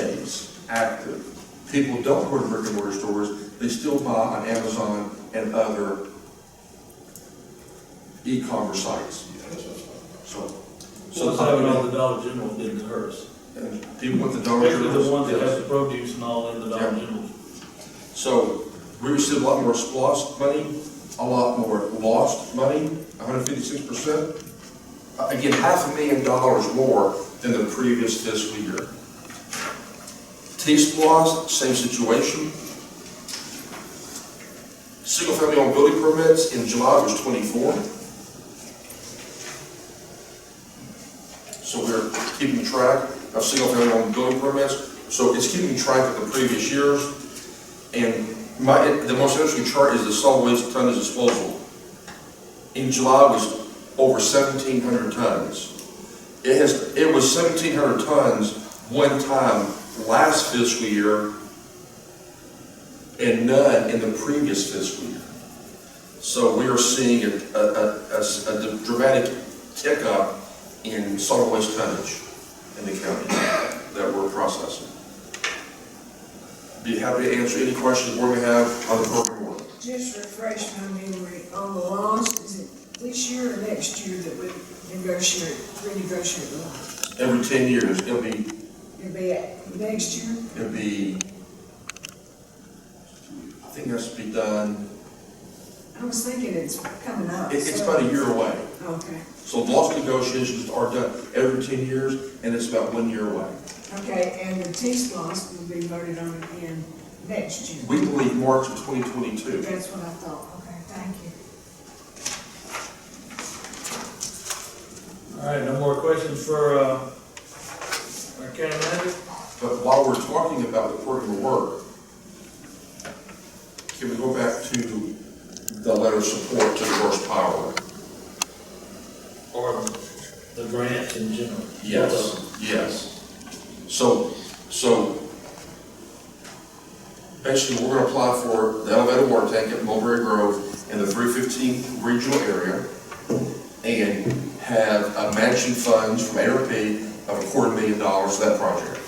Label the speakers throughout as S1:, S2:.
S1: stays active. People don't go to brick and mortar stores, they still buy on Amazon and other e-commerce sites, so.
S2: So the five dollar Dollar General did to hers.
S1: And people with the Dollar
S2: Especially the
S1: Generals,
S2: ones that
S1: yes.
S2: have the produce and all in the Dollar
S1: Yeah.
S2: General.
S1: So we received a lot more lost money, a lot more lost money, hundred fifty-six percent. Uh, Again, half a million dollars more than the previous fiscal year. T lost, same situation. Single-family home building permits in July was twenty-four. So we're keeping track of single-family home building permits, so it's keeping track of the previous years. And my, the most interesting chart is the solid waste tonnage disposal. In July was over seventeen hundred tons. It has, it was seventeen hundred tons one time last fiscal year and none in the previous fiscal year. So we are seeing a, a, a- a s- a dramatic tick up in solid waste tonnage in the county that we're processing. Be happy to answer any questions we may have on the program board.
S3: Just refresh my memory, on the loans, is it this year or next year that we negotiate, renegotiate the loan?
S1: Every ten years, it'll be,
S3: It'll be at next year?
S1: it'll be, I think that's to be done,
S3: I was thinking it's coming up.
S1: it, it's
S3: so-
S1: about a year away.
S3: Okay,
S1: So loss negotiations are done every ten years, and it's about one year away.
S3: okay, and the TIF loss will be voted on again next year.
S1: We believe March of twenty twenty-two.
S3: That's what I thought, okay, thank you.
S2: All right, no more questions for, uh, our county manager?
S1: But while we're talking about the program of work, can we go back to the letter of support to First Power?
S2: Or the grants in general?
S1: Yes, yes. So, so basically, we're gonna apply for the elevated water tank at Mulberry Grove in the three fifteen regional area and have a matching funds from ARP of a quarter million dollars for that project.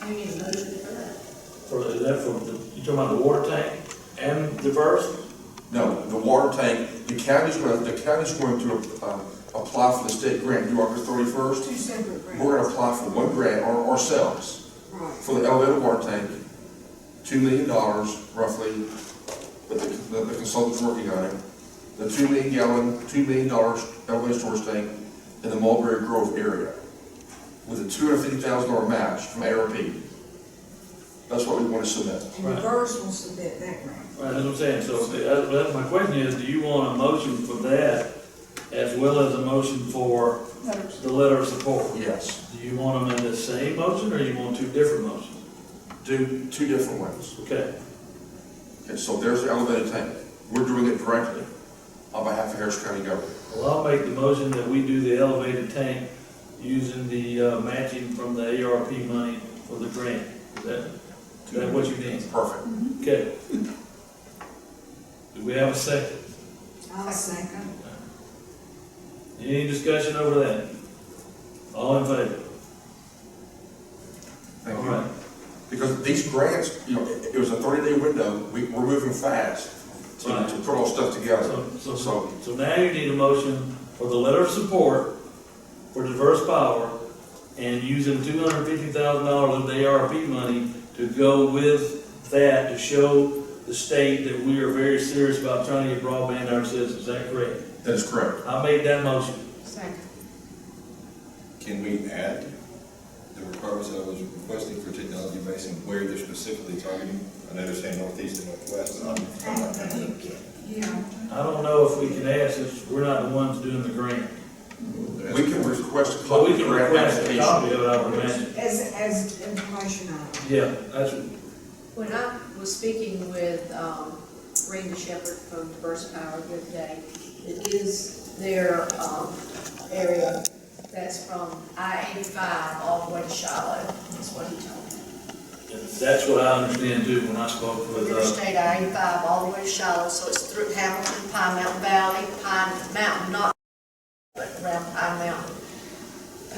S4: You need a motion for that.
S2: For, is that for, the- you talking about the water tank and the first?
S1: No, the water tank, the county's gonna, the county's going to, um, apply for the state grant due August thirty-first.
S3: Two separate
S1: We're
S3: grants.
S1: gonna apply for one grant our- ourselves.
S3: Right,
S1: for the elevated water tank, two million dollars roughly, but the, the- the consultant's working on it. The two million gallon, two million dollars elevated storage tank in the Mulberry Grove area with a two hundred fifty thousand dollar match from ARP. That's what we want to submit.
S3: and the Verse will submit that grant.
S2: Right, that's what I'm saying, so, that, that's my question is, do you want a motion for that as well as a motion for the letter of support?
S1: Yes,
S2: Do you want them in the same motion, or you want two different motions?
S1: do two different ones.
S2: Okay,
S1: Okay, so there's the elevated tank. We're doing it directly on behalf of Harris County government.
S2: well, I'll make the motion that we do the elevated tank using the uh, matching from the ARP money for the grant. Is that, is that what you mean?
S1: Perfect.
S2: Okay. Do we have a second?
S3: I'll second.
S2: Any discussion over that? All in favor?
S1: Thank
S2: All
S1: you.
S2: right.
S1: Because these grants, you know, it it was a thirty-day window, we, we're moving fast to,
S2: Right.
S1: to put all stuff together.
S2: So, so,
S1: So-
S2: so now you need a motion for the letter of support for diverse power and using two hundred fifty thousand dollars of the ARP money to go with that to show the state that we are very serious about trying to get broadband to our citizens. Is that correct?
S1: That is correct.
S2: I made that motion.
S4: Second.
S5: Can we add the requirements that I was requesting for technology base and where they're specifically targeting? I know they're saying northeast and northwest, and I'm, I'm not kind of,
S3: Yeah.
S2: I don't know if we can ask since we're not the ones doing the grant.
S1: We can request a
S2: But
S1: copy
S2: we
S1: of the
S2: can
S1: grant
S2: request a
S1: application.
S2: copy of it, I would imagine.
S3: As, as information item.
S2: Yeah, that's,
S4: When I was speaking with um, Randy Shepherd from Diverse Power the other day, it is their um, area that's from I-85 all the way to Shiloh, is what he told me.
S2: that's what I understand too when I spoke with, uh,
S4: Interstate I-85 all the way to Shiloh, so it's through Hamilton, Pine Mountain Valley, Pine Mountain, not but around Pine Mountain,